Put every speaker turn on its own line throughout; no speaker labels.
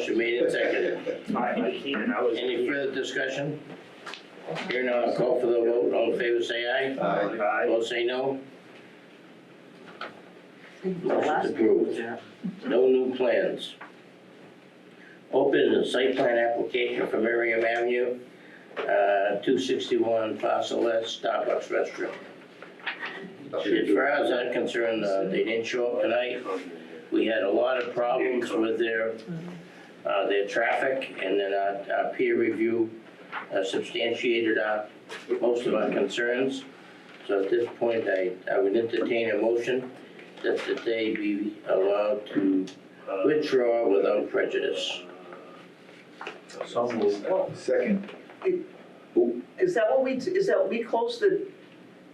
Motion made and seconded.
I, I can't, I was.
Any further discussion? Here now, I'll call for the vote. All in favor, say aye.
Aye.
I,
Opposed, say no. Motion's
last-
approved. No new plans. Open the site plan application for Merriam Avenue, uh, two sixty-one parcel S Starbucks restaurant. As far as I'm concerned, uh, they didn't show up tonight. We had a lot of problems with their, uh, their traffic, and then our, our peer review uh, substantiated our, most of our concerns. So at this point, I, I would entertain a motion that, that they be allowed to withdraw without prejudice.
so moved.
Second.
Is that what we, is that, we close the,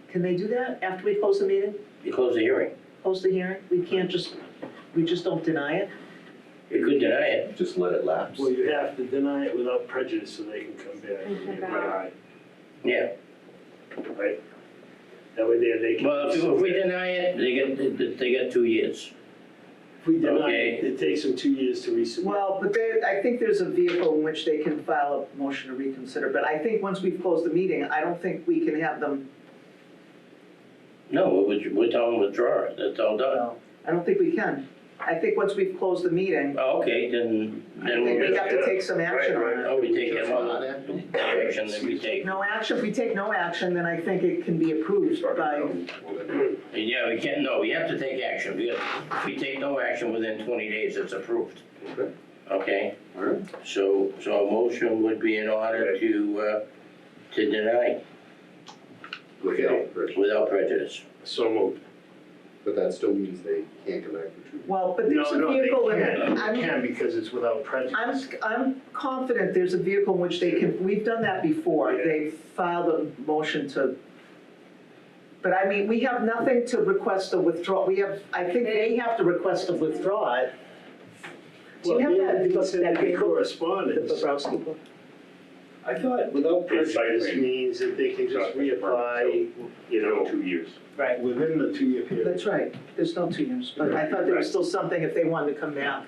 can they do that after we close the meeting,
You close the hearing.
close the hearing? We can't just, we just don't deny it?
You could deny it.
Just let it lapse.
Well, you have to deny it without prejudice so they can come back.
And come
and
back.
deny,
Yeah.
Right? That way they, they can.
Well, if if we deny it, they get, they get two years.
If we deny it,
Okay.
it takes them two years to resubmit.
Well, but there, I think there's a vehicle in which they can file a motion to reconsider, but I think once we've closed the meeting, I don't think we can have them,
No, we would, we're telling withdraw it. That's all done.
I don't think we can. I think once we've closed the meeting,
Oh, Okay, then,
I
then
think
we'll
we
just,
have to take some action
Right, right.
on it.
oh, we take it all the action that we take.
No action, if we take no action, then I think it can be approved by,
And Yeah, we can't, no, we have to take action, because if we take no action within twenty days, it's approved.
Okay.
Okay?
Alright.
So, so a motion would be in order to, uh, to deny
Without pressure.
without prejudice.
So moved.
But that still means they can't come back for two.
well, but
No,
there's a
no, they
vehicle in it.
can't.
I'm-
They can because it's without
I'm,
prejudice.
I'm confident there's a vehicle in which they can, we've done that before, they filed a motion to. But I mean, we have nothing to request a withdrawal, we have, I think they have to request a withdraw it. Do you
Well,
have
yeah,
that,
it's in
that
the
paper, the
Correspondence.
Bobrowski book?
I thought without
This means that they can just reapply, you know,
two years.
Right.
within the two-year period.
That's right, there's no two years, but I thought there was still something if they wanted to come back.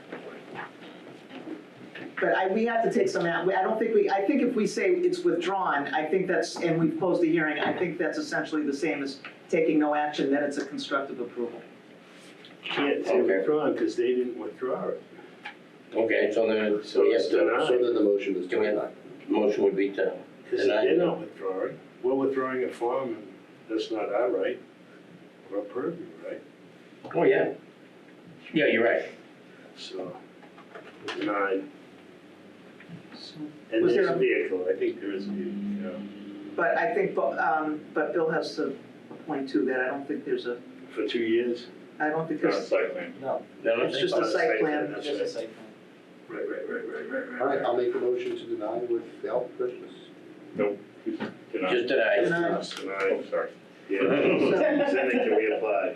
But I, we have to take some, out. I don't think we, I think if we say it's withdrawn, I think that's, and we've closed the hearing, I think that's essentially the same as taking no action, then it's a constructive approval.
Can't say
Okay.
withdrawn because they didn't withdraw it.
Okay, so then, so yes, the
So then the motion is
Can we-
denied.
motion would be to,
Because
Denied.
they're not withdrawing, we're withdrawing it for them, and that's not our right, or our purview, right?
oh, yeah. Yeah, you're right.
So, denied,
So-
and
Was
there's
there
a
a-
vehicle, I think there is a vehicle,
But I think, Bo- um, but Bill has a point too, that I don't think there's a,
yeah, for two years.
I don't think
Not a
there's,
site plan.
Then let's
It's just
say-
a site plan.
That's
Just a
right,
site plan.
right, right, right, right, right.
All right, I'll make a motion to deny without prejudice.
Denied.
Uh, Just deny.
Denied.
It's
Oh,
Denied,
sorry.
yeah, then they can reapply,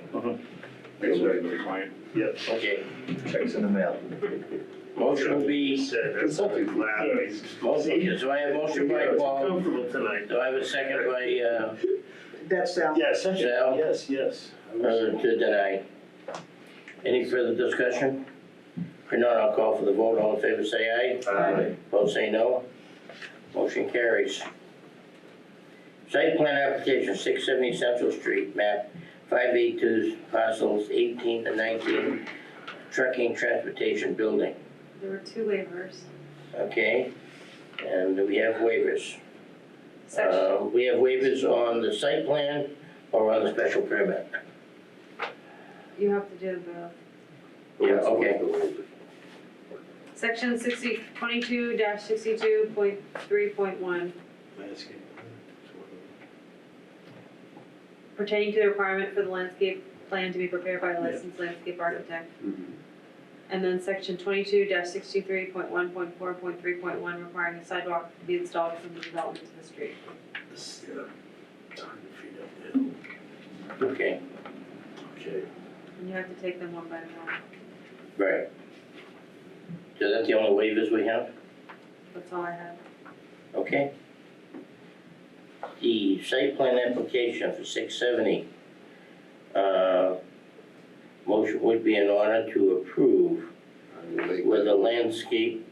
Thanks for the client.
yep.
Okay,
Checks in the mail.
motion would be,
Said, that's not
Consulting.
allowed.
motion, so I have motion by
Yeah, it's
Paul,
Comfortable tonight.
do I have a second by, uh,
that's Sal.
Yeah, essentially,
Sal?
yes, yes. I wish
Uh, to deny. Any further discussion? If not, I'll call for the vote, all in favor say aye,
so.
Aye.
opposed say no. Motion carries. Site plan application, six seventy Central Street, map five eight two, parcels eighteen to nineteen, trucking transportation building,
There were two waivers.
okay? And we have waivers.
Section,
Uh, we have waivers on the site plan or on the special permit?
you have to do the,
Yeah, okay.
section sixty, twenty-two dash sixty-two point three point one
Landscape.
pertaining to the requirement for the landscape plan to be prepared by a licensed landscape architect. And then section twenty-two dash sixty-three point one point four point three point one requiring a sidewalk to be installed from the development to the street.
This, yeah, it's a hundred feet up there.
Okay,
Okay.
And you have to take them one by one,
Right. So that's the only waivers we have?
that's all I have.
Okay. The site plan application for six seventy. uh, Motion would be in order to approve
I will make,
with a landscape